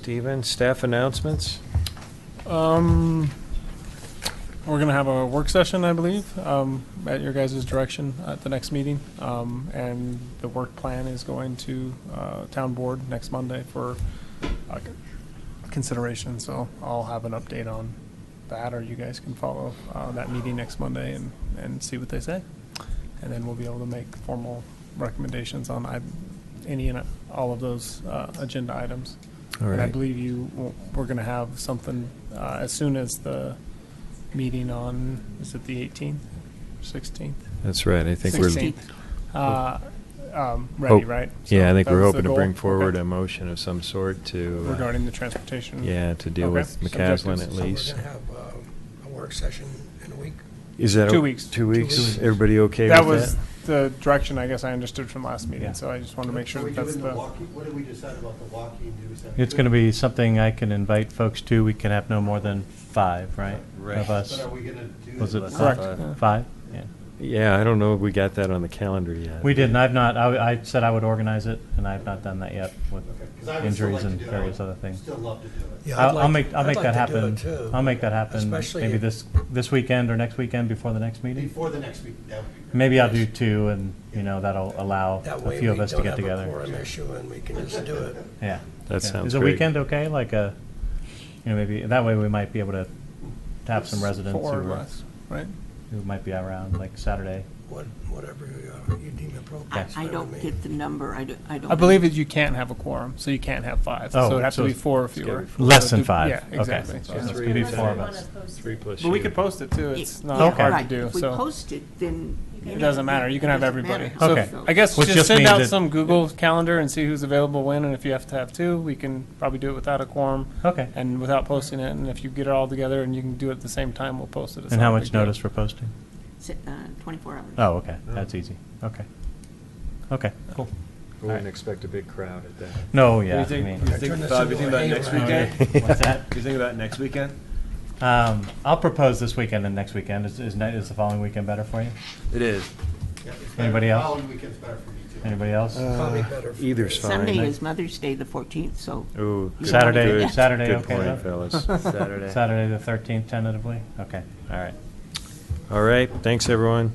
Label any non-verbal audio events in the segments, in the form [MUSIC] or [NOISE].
Stephen, staff announcements? Um, we're gonna have a work session, I believe, um, at your guys' direction at the next meeting. Um, and the work plan is going to, uh, town board next Monday for, uh, consideration. So I'll have an update on that, or you guys can follow, uh, that meeting next Monday and, and see what they say. And then we'll be able to make formal recommendations on I, any and all of those, uh, agenda items. All And I right, believe you, we're going to have something uh, as soon as the meeting on, is it the 18th, 16th? that's right, I think we're, 16th. Uh, um, Oh, Ready, right? yeah, I So think that we're was the hoping to goal. bring forward Okay. a motion of some sort to, uh, Regarding the transportation. yeah, to deal Okay. with McCaslin Subjectives. at So we're least. So we're going to have um, a work session in a week. Is that? Two o- weeks. Two Two weeks, weeks. everybody okay That with was that? the direction, I guess, I understood from last Yeah. meeting, so I just want to make sure Are we that that's doing the the, walkie- What did we decide about the walking? Do we decide- It's going to be something I can invite folks to. We can have no more than five, right? Of us. But are we going to do? Was it Correct. five? Yeah. Five? Yeah. Yeah, I don't know if we got that on the calendar yet. We didn't. I've not, I, I said I would organize it and I've not done that yet with Because I would still like injuries to and do it. I various would other things. Still love to do it. Yeah, I'd I'll, I'll like- make, I'll I'd make like that to do happen. it, too. I'll make that happen Especially maybe if- this, this weekend or next weekend before the next meeting. Before the next week, that would be great. Maybe I'll do two and, you know, that'll allow That a way few we of don't us to get have a together. quorum issue and we can just do it. Yeah. That Yeah. sounds Is a great. weekend okay? Like a, you know, maybe, that way we might be able to have some residents who four or are- less, right? who might be around, like Saturday. What Whatever you uh, you deem appropriate. I, That's I fine don't with me. get the number, I don't, I don't. I believe that you can't have a quorum, so you can't have five. So Oh, it'd have to so be four or fewer. gotta be Less than So do- five. Yeah, Okay. exactly. So Yeah. it's Three gonna be plus four of you. us. Three plus But we you. could post it too, it- it's not yeah, Okay. hard right. to do, If we so. post it, then. It doesn't matter. You can have everybody. So Okay. I guess Which just just send means out that- some Google calendar and see who's available when, and if you have to have two, we can probably do it without a quorum Okay. and without posting it, and if you get it all together and you can do it at the same time, we'll post it. It's And not how a much big deal. notice for posting? uh, Twenty-four hours. Oh, okay, that's easy, okay. Okay, cool. We wouldn't expect a big crowd at that. No, yeah, I Do you mean, think, [LAUGHS] do you Turn think, this Bob, you think into a about next hayride. weekend? Do what's that? you think about next weekend? Um, I'll propose this weekend and next weekend, is, is ne- is the following weekend better for you? It is. Yeah, it's better. Anybody else? Following weekend's better for me too. Anybody else? Uh, Probably better. for Either's me. fine. Sunday is Mother's Day, the fourteenth, so. Ooh. good- Saturday- good- Saturday, Good okay, point, though? [LAUGHS] fellas. Saturday. Saturday the thirteenth tentatively, okay, all right. All right, thanks, everyone.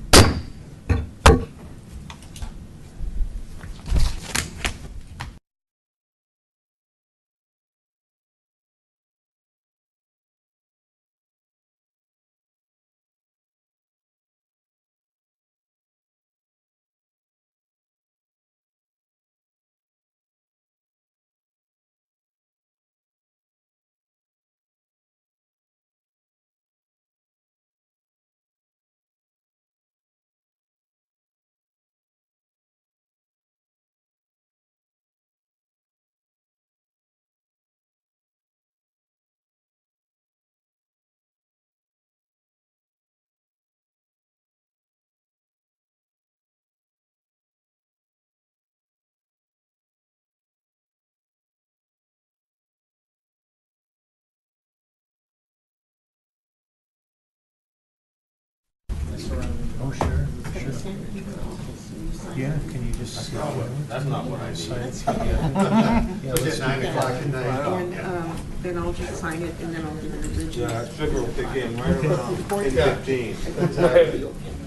It's at nine o'clock at night. And, um, then I'll just sign it and then I'll give it a digital. figure will kick in right around fifteen.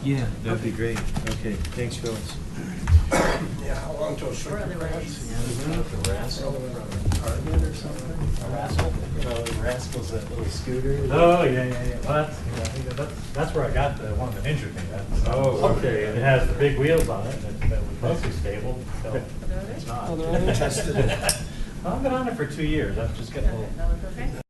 Yeah, that'd be great. Okay, thanks, Phyllis. Yeah, how long till circuit breaks? Rascals, that little scooter. Oh, yeah, yeah, yeah, well, that's, yeah, I think that- that's, that's where I got the one that injured me, that's. Oh, okay. It has the big wheels on it, that, that was mostly stable, so it's not. Tested it. I've been on it for two years, I've just got a little.